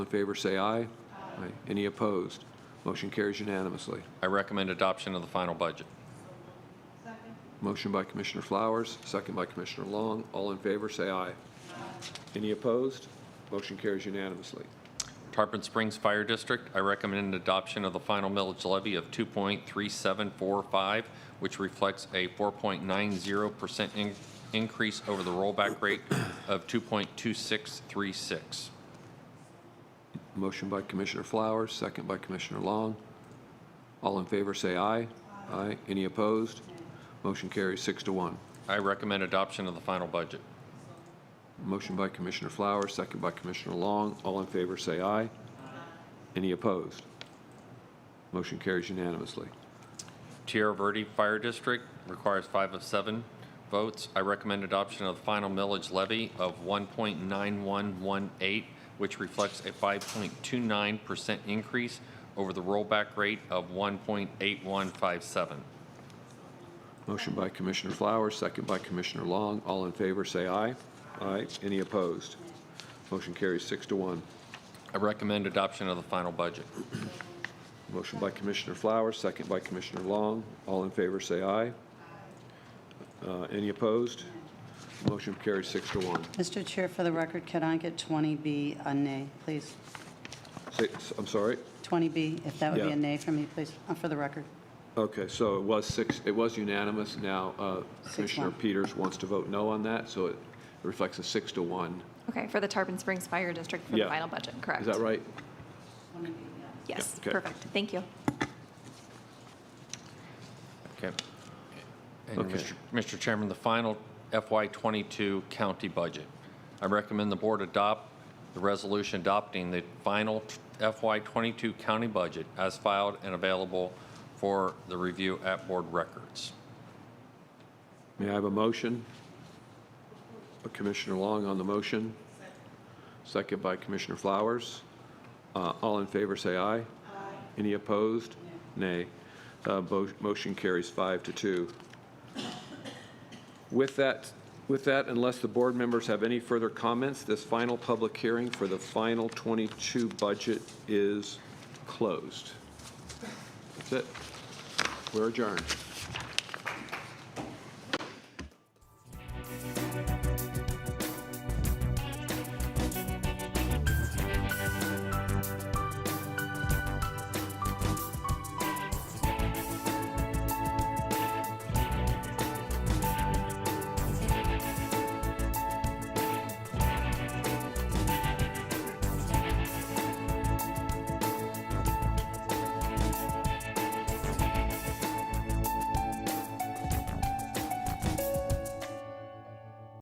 in favor, say aye. Aye. Any opposed? Motion carries unanimously. I recommend adoption of the final budget. Motion by Commissioner Flowers, second by Commissioner Long. All in favor, say aye. Any opposed? Motion carries unanimously. Tarpon Springs Fire District, I recommend adoption of the final millage levy of 2.3745, which reflects a 4.90% in- increase over the rollback rate of 2.2636. Motion by Commissioner Flowers, second by Commissioner Long. All in favor, say aye. Aye. Any opposed? Motion carries six to one. I recommend adoption of the final budget. Motion by Commissioner Flowers, second by Commissioner Long. All in favor, say aye. Any opposed? Motion carries unanimously. Tierra Verde Fire District requires five of seven votes. I recommend adoption of the final millage levy of 1.9118, which reflects a 5.29% increase over the rollback rate of 1.8157. Motion by Commissioner Flowers, second by Commissioner Long. All in favor, say aye. Aye. Any opposed? Motion carries six to one. I recommend adoption of the final budget. Motion by Commissioner Flowers, second by Commissioner Long. All in favor, say aye. Uh, Any opposed? Motion carries six to one. Mr. Chair, for the record, can I get 20B a nay, please? Six, I'm sorry? 20B, if that would be Yeah. a nay for me, please, uh, for the record. Okay, so it was six, it was unanimous. Now uh, Six Commissioner one. Peters wants to vote no on that, so it reflects a six to one. Okay, for the Tarpon Springs Fire District for the Yeah. final budget, correct? Is that right? Yes, Yeah, okay. perfect, thank you. Okay. And Okay. Mr. Mr. Chairman, the final FY '22 county budget. I recommend the board adopt the resolution adopting the final FY '22 county budget as filed and available for the review at board records. May I have a motion? Commissioner Long on the motion. Second by Commissioner Flowers. Uh, All in favor, say aye. Aye. Any opposed? Nay. Uh, bo- Motion carries five to two. With that, with that, unless the board members have any further comments, this final public hearing for the final 22 budget is closed. That's it. We're adjourned.